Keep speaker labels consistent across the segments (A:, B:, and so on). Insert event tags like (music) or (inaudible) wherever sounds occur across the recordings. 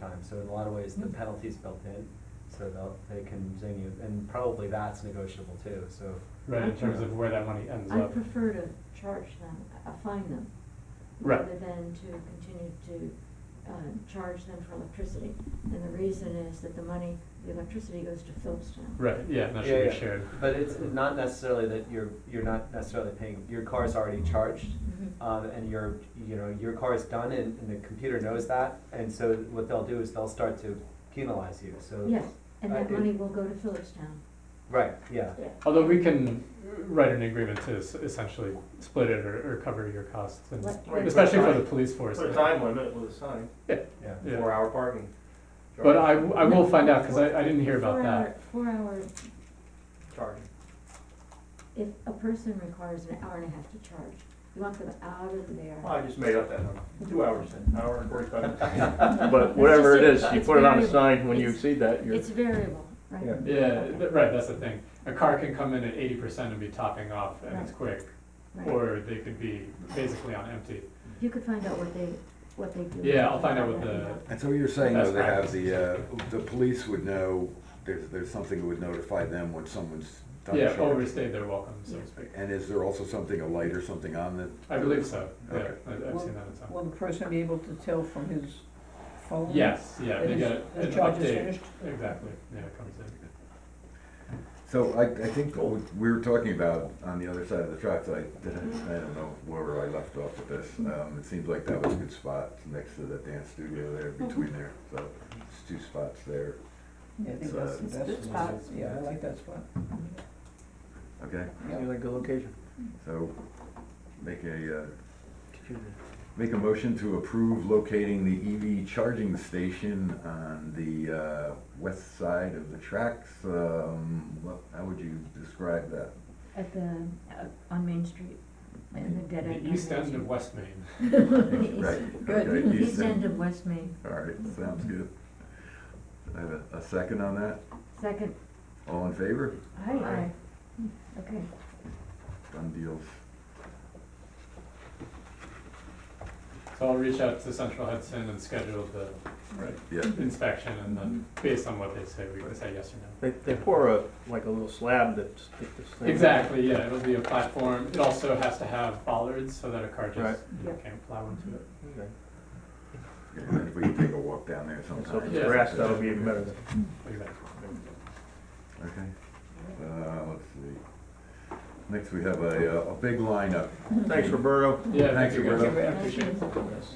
A: time, so in a lot of ways, the penalty's built in, so they'll, they can zing you, and probably that's negotiable too, so.
B: Right, in terms of where that money ends
C: I
B: up.
C: prefer to charge them, uh, fine them.
B: Right.
C: Rather than to continue to, uh, charge them for electricity. And the reason is that the money, the electricity goes to Phillipstown.
B: Right, yeah,
A: Yeah,
B: that should
A: yeah.
B: be shared.
A: But it's not necessarily that you're, you're not necessarily paying, your car's already charged,
C: Mhm.
A: um, and your, you know, your car is done and, and the computer knows that, and so what they'll do is they'll start to penalize you, so.
C: Yes, and
A: I-
C: that money will go to Phillipstown.
A: Right, yeah,
B: Although we can write an agreement to s- essentially split it or, or cover your costs, and
C: Let-
D: Right,
B: especially
D: put
B: for
D: a
B: the
D: time-
B: police force.
D: Put a time limit with a sign,
A: yeah.
B: Yeah.
D: four hour parking.
B: But I, w- I will find out because I, I didn't hear about
C: Four
B: that.
C: hour, four hour,
D: Charging.
C: if a person requires an hour and a half to charge, you want them out of there.
D: Well, I just made up that number, two hours, an hour and forty-five minutes.
E: (laughs) But whatever it
C: It's
E: is,
C: just a-
E: you
C: it's
E: put it on a
C: variable.
E: sign, when you
C: It's-
E: exceed that, you're,
C: It's variable, right?
D: Yeah.
B: Yeah, th- right, that's the thing. A car can come in at eighty percent and be topping off and it's quick,
C: Right.
B: or they could be basically on empty.
C: You could find out what they, what they do.
B: Yeah, I'll find out what the-
F: And so you're saying
B: Best
F: though they have
B: practices.
F: the, uh, the police would know, there's, there's something that would notify them when someone's done
B: Yeah,
F: charging?
B: overstayed their welcome, so to speak.
F: And is there also something, a light or something on the?
B: I believe so, yeah,
F: Okay.
B: I- I've seen that in some.
G: Will the person be able to tell from his phone?
B: Yes, yeah, they
G: That
B: get
G: his,
B: an
G: his charge is
B: update,
G: finished?
B: exactly, yeah, it comes in.
F: So I, I think what we were talking about on the other side of the tracks, I didn't, I don't know where I left off with this.
C: Mm-hmm.
F: Um, it seems like that was a good spot next to the dance studio there,
C: Mm-hmm.
F: between there, so it's two spots there,
G: Yeah, I think
F: So-
G: that's the
C: It's a good
G: best.
C: spot.
G: Yeah, I like that spot.
F: okay?
G: Yeah.
D: like the location.
F: So make a, uh, Make a motion to approve locating the EV charging station on the uh, west side of the tracks. Um, what- How would you describe that?
C: At the, uh, on Main Street, in the dead end.
B: The east end of West Main.
C: (laughs)
F: Right, okay,
C: Good, east end
F: Easton.
C: of West Main,
F: All right, sounds good. I have a- a second on that.
C: second,
F: All in favor?
C: aye, aye, okay.
F: Done deals.
B: So I'll reach out to Central Hudson and schedule the
F: Right. Yeah,
B: inspection and then based on what they say, we can say yes or no.
D: They, they pour a, like a little slab that stick this thing.
B: Exactly, yeah, it'll be a platform, it also has to have bollards so that a car
D: Right.
B: just you know, can't plow into it.
D: Okay.
F: and then if we can take a walk down there
D: And so if
F: sometime.
D: it's grass, that'll be even better.
B: Exactly.
F: Okay, Uh, let's see. Next, we have a uh, a big lineup.
C: Mm-hmm.
D: Thanks, Roberto.
B: Yeah, thank
F: Thanks,
B: you guys.
F: Roberto.
B: I appreciate it.
D: Yes.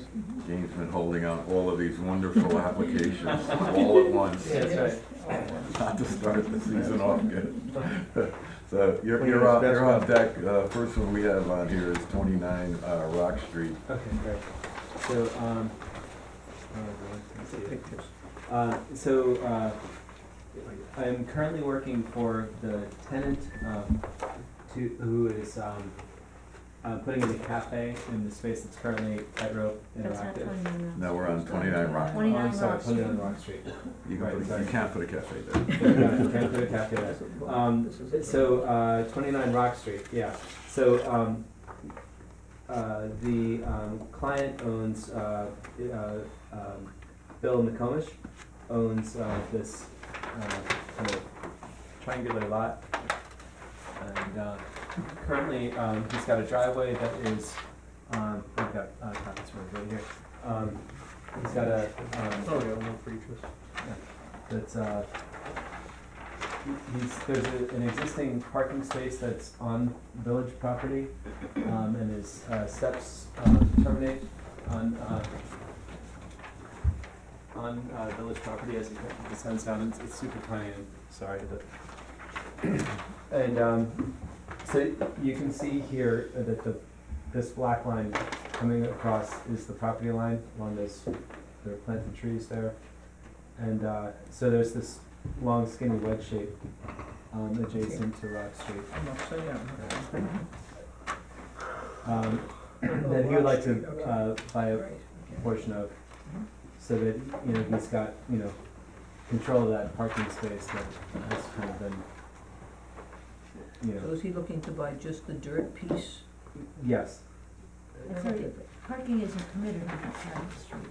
F: James been holding on all of these wonderful applications
B: (laughs)
F: all at once, (laughs)
D: Yeah, that's right.
F: not to start the season off good. (laughs) So you're,
D: Clean
F: you're on,
D: his desk
F: you're on
D: up.
F: deck. Uh, first one we have on here is twenty-nine, uh, Rock Street.
A: Okay, great. So, um, let's see.
D: Pictures.
A: Uh, so, uh, I am currently working for the tenant, um, to, who is, um, uh, putting in a cafe in the space that's currently tightrope
C: That's not
A: interactive.
C: twenty-nine
F: Now
C: Rock.
F: we're on twenty-nine Rock.
A: Oh, I'm
C: 29
A: sorry,
C: Rock
A: twenty-nine
C: Street.
A: Rock Street.
F: You can put, a- you can't put a cafe
A: There
F: there.
A: we go. You Can't put a cafe there. Um, so, uh, twenty-nine Rock Street, yeah. So, um, uh, the, um, client owns, uh, uh, um, Bill McComish owns, uh, this, uh, kind of triangular lot. And, uh, currently, um, he's got a driveway that is, um, I've got, uh, comments from right here. Um, he's got a, um,
D: Oh, yeah, one for each of us.
A: that's, uh, he- he's, there's a, an existing parking space that's on village property, um, and his, uh, steps, uh, terminate on, uh, on, uh, village property as he descends down, it's, it's super tiny, and sorry, but. (clears throat) And, um, so you can see here that the, this black line coming across is the property line, along those, there are planted trees there. And uh, so there's this long skinny wedge shape um, adjacent to Rock Street.
G: I'm upside down.
A: Um, (coughs) that he would like to uh, buy a portion of, so that, you know, he's got, you know, control of that parking space that has kind of been, you
G: So
A: know,
G: is he looking to buy just the dirt piece?
A: yes.
C: Sorry, Parking isn't permitted on that side of the street.